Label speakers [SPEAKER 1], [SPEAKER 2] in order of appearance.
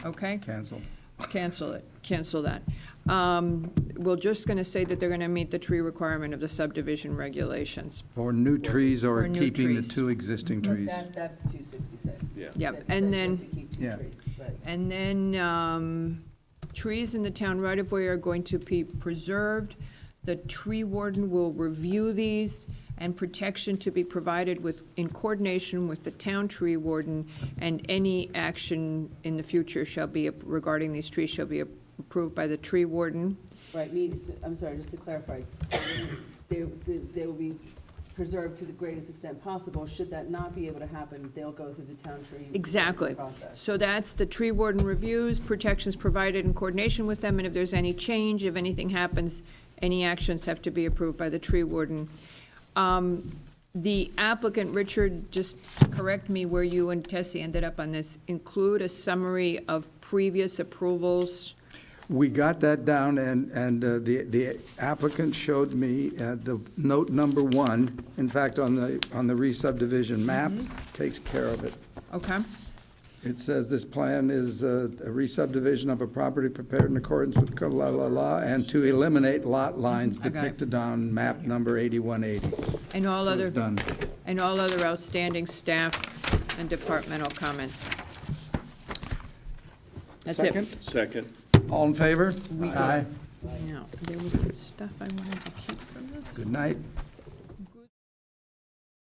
[SPEAKER 1] okay?
[SPEAKER 2] Cancel.
[SPEAKER 1] Cancel it, cancel that. Um, We're just going to say that they're going to meet the tree requirement of the subdivision regulations.
[SPEAKER 2] Or new trees or
[SPEAKER 1] Or new
[SPEAKER 2] keeping the
[SPEAKER 1] trees. Mm-hmm.
[SPEAKER 2] two existing trees.
[SPEAKER 3] That, that's two sixty-six.
[SPEAKER 4] Yeah.
[SPEAKER 1] Yep, and
[SPEAKER 3] That says you
[SPEAKER 1] then-
[SPEAKER 3] have to keep two
[SPEAKER 2] Yeah.
[SPEAKER 3] trees, right.
[SPEAKER 1] And then um, trees in the town right-of-way are going to be preserved. The tree warden will review these and protection to be provided with, in coordination with the town tree warden, and any action in the future shall be, regarding these trees shall be approved by the tree warden.
[SPEAKER 3] Right, means, I'm sorry, just to clarify, so they, they they will be preserved to the greatest extent possible. Should that not be able to happen, they'll go through the town tree.
[SPEAKER 1] Exactly.
[SPEAKER 3] Process.
[SPEAKER 1] So that's the tree warden reviews, protections provided in coordination with them, and if there's any change, if anything happens, any actions have to be approved by the tree warden. Um, The applicant, Richard, just correct me where you and Tessie ended up on this, include a summary of previous approvals.
[SPEAKER 2] We got that down, and, and uh, the the applicant showed me uh, the note number one, in fact, on the, on the re-subdivision map,
[SPEAKER 1] Mm-hmm.
[SPEAKER 2] takes care of it.
[SPEAKER 1] Okay,
[SPEAKER 2] It says this plan is uh, a re-subdivision of a property prepared in accordance with co- la, la, la, and to eliminate lot lines
[SPEAKER 1] I got it.
[SPEAKER 2] depicted on map number 8180.
[SPEAKER 1] and all
[SPEAKER 2] So it's
[SPEAKER 1] other,
[SPEAKER 2] done.
[SPEAKER 1] and all other outstanding staff and departmental comments. That's it.
[SPEAKER 2] Second?
[SPEAKER 4] Second.
[SPEAKER 2] All in favor? Aye.
[SPEAKER 1] Now, there was some stuff I wanted to keep from this.
[SPEAKER 2] Good night.